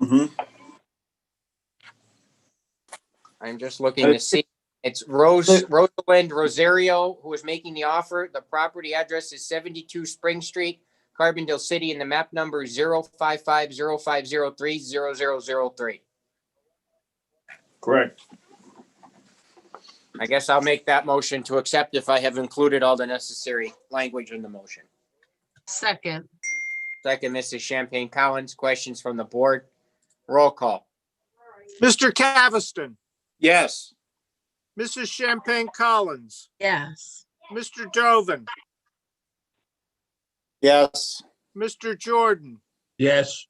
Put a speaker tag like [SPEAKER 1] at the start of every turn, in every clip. [SPEAKER 1] Mhm.
[SPEAKER 2] I'm just looking to see. It's Rose, Rosalind Rosario, who is making the offer. The property address is seventy-two Spring Street, Carbondale City, and the map number is zero five five zero five zero three zero zero zero three.
[SPEAKER 1] Correct.
[SPEAKER 2] I guess I'll make that motion to accept if I have included all the necessary language in the motion.
[SPEAKER 3] Second,
[SPEAKER 2] Second, Mrs. Champagne Collins, questions from the board? Roll call.
[SPEAKER 4] Mr. Caviston,
[SPEAKER 1] Yes.
[SPEAKER 4] Mrs. Champagne Collins,
[SPEAKER 3] yes.
[SPEAKER 4] Mr. Dovin,
[SPEAKER 1] Yes.
[SPEAKER 4] Mr. Jordan,
[SPEAKER 5] yes,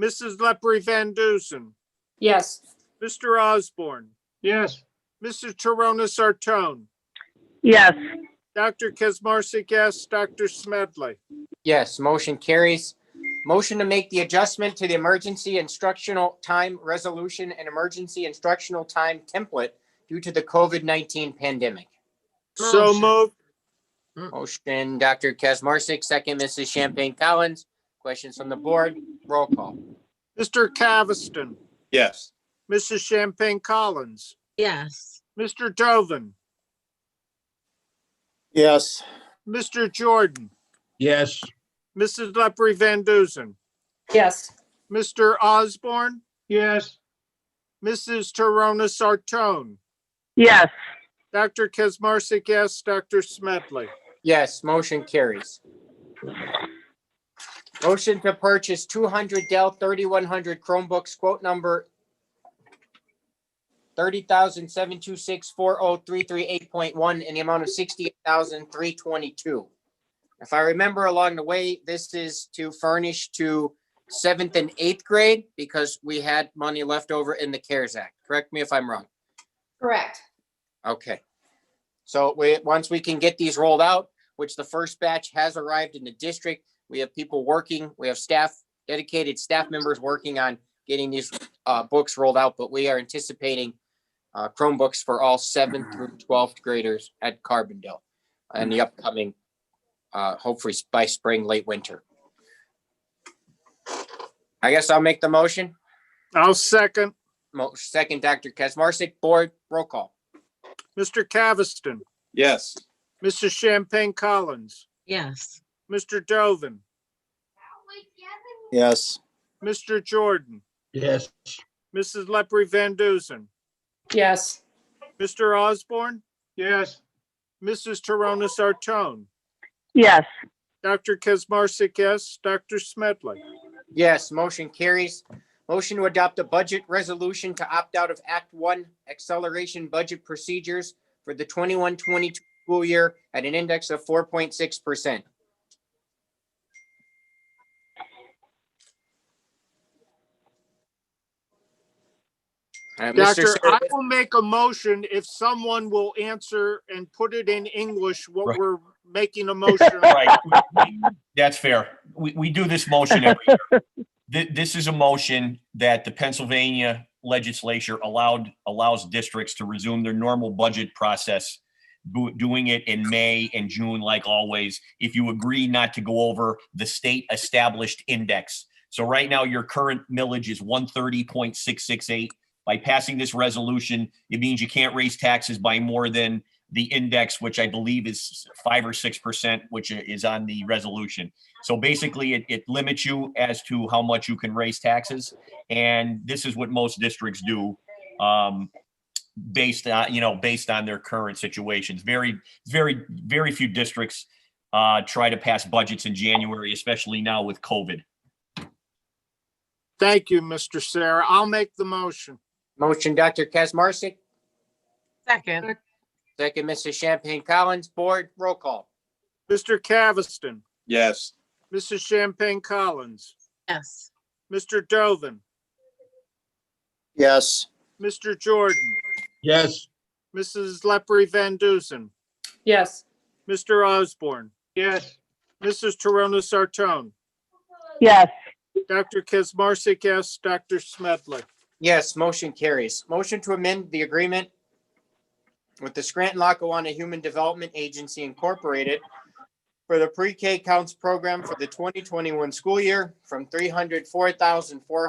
[SPEAKER 4] Mrs. Leprey Van Dusen,
[SPEAKER 6] yes,
[SPEAKER 4] Mr. Osborne. Yes. Mrs. Torona Sartone,
[SPEAKER 7] yes,
[SPEAKER 4] Dr. Kesmarsik, yes, Dr. Smedley.
[SPEAKER 2] Yes, motion carries. Motion to make the adjustment to the emergency instructional time resolution and emergency instructional time template due to the COVID-19 pandemic.
[SPEAKER 4] So
[SPEAKER 3] Motion.
[SPEAKER 4] moved.
[SPEAKER 2] Motion, Dr. Kesmarsik, second, Mrs. Champagne Collins. Questions from the board? Roll call.
[SPEAKER 4] Mr. Caviston,
[SPEAKER 1] Yes.
[SPEAKER 4] Mrs. Champagne Collins,
[SPEAKER 3] Yes,
[SPEAKER 4] Mr. Dovin,
[SPEAKER 1] Yes.
[SPEAKER 4] Mr. Jordan,
[SPEAKER 5] yes,
[SPEAKER 4] Mrs. Leprey Van Dusen,
[SPEAKER 6] yes,
[SPEAKER 4] Mr. Osborne. Yes. Mrs. Torona Sartone,
[SPEAKER 7] yes,
[SPEAKER 4] Dr. Kesmarsik, yes, Dr. Smedley.
[SPEAKER 2] Yes, motion carries. Motion to purchase two hundred Dell thirty-one hundred Chromebooks, quote number thirty thousand seven two six four oh three three eight point one in the amount of sixty-eight thousand three twenty-two. If I remember along the way, this is to furnish to seventh and eighth grade because we had money left over in the CARES Act. Correct me if I'm wrong.
[SPEAKER 6] correct.
[SPEAKER 2] Okay. So we, once we can get these rolled out, which the first batch has arrived in the district, we have people working, we have staff, dedicated staff members working on getting these uh, books rolled out, but we are anticipating uh, Chromebooks for all seventh through twelfth graders at Carbondale in the upcoming, uh, hopefully by spring, late winter. I guess I'll make the motion.
[SPEAKER 4] I'll second.
[SPEAKER 2] Mo- Second, Dr. Kesmarsik, board, roll call.
[SPEAKER 4] Mr. Caviston,
[SPEAKER 1] Yes.
[SPEAKER 4] Mrs. Champagne Collins,
[SPEAKER 3] yes,
[SPEAKER 4] Mr. Dovin,
[SPEAKER 1] Yes.
[SPEAKER 4] Mr. Jordan,
[SPEAKER 5] yes,
[SPEAKER 4] Mrs. Leprey Van Dusen,
[SPEAKER 6] Yes,
[SPEAKER 4] Mr. Osborne. Yes. Mrs. Torona Sartone,
[SPEAKER 7] yes,
[SPEAKER 4] Dr. Kesmarsik, yes, Dr. Smedley.
[SPEAKER 2] Yes, motion carries. Motion to adopt a budget resolution to opt out of Act One Acceleration Budget Procedures for the 21-22 school year at an index of four point six percent. Uh,
[SPEAKER 4] Doctor, I will make a motion if someone will answer and put it in English what
[SPEAKER 8] Right.
[SPEAKER 4] we're making a motion. on.
[SPEAKER 8] Right. That's fair. We, we do this motion every year. Thi- This is a motion that the Pennsylvania legislature allowed, allows districts to resume their normal budget process, do- doing it in May and June like always, if you agree not to go over the state established index. So right now, your current millage is one thirty point six six eight. By passing this resolution, it means you can't raise taxes by more than the index, which I believe is five or six percent, which i- is on the resolution. So basically, it, it limits you as to how much you can raise taxes, and this is what most districts do. Um, based on, you know, based on their current situations, very, very, very few districts uh, try to pass budgets in January, especially now with COVID.
[SPEAKER 4] Thank you, Mr. Sarah. I'll make the motion.
[SPEAKER 2] Motion, Dr. Kesmarsik,
[SPEAKER 3] second,
[SPEAKER 2] second, Mrs. Champagne Collins, board, roll call.
[SPEAKER 4] Mr. Caviston,
[SPEAKER 1] Yes.
[SPEAKER 4] Mrs. Champagne Collins,
[SPEAKER 3] yes,
[SPEAKER 4] Mr. Dovin,
[SPEAKER 1] Yes.
[SPEAKER 4] Mr. Jordan,
[SPEAKER 5] yes,
[SPEAKER 4] Mrs. Leprey Van Dusen,
[SPEAKER 6] yes,
[SPEAKER 4] Mr. Osborne. Yes. Mrs. Torona Sartone,
[SPEAKER 7] yes,
[SPEAKER 4] Dr. Kesmarsik, yes, Dr. Smedley.
[SPEAKER 2] Yes, motion carries. Motion to amend the agreement with the Scranton Lackawanna Human Development Agency Incorporated for the pre-K counts program for the 2021 school year from 304,400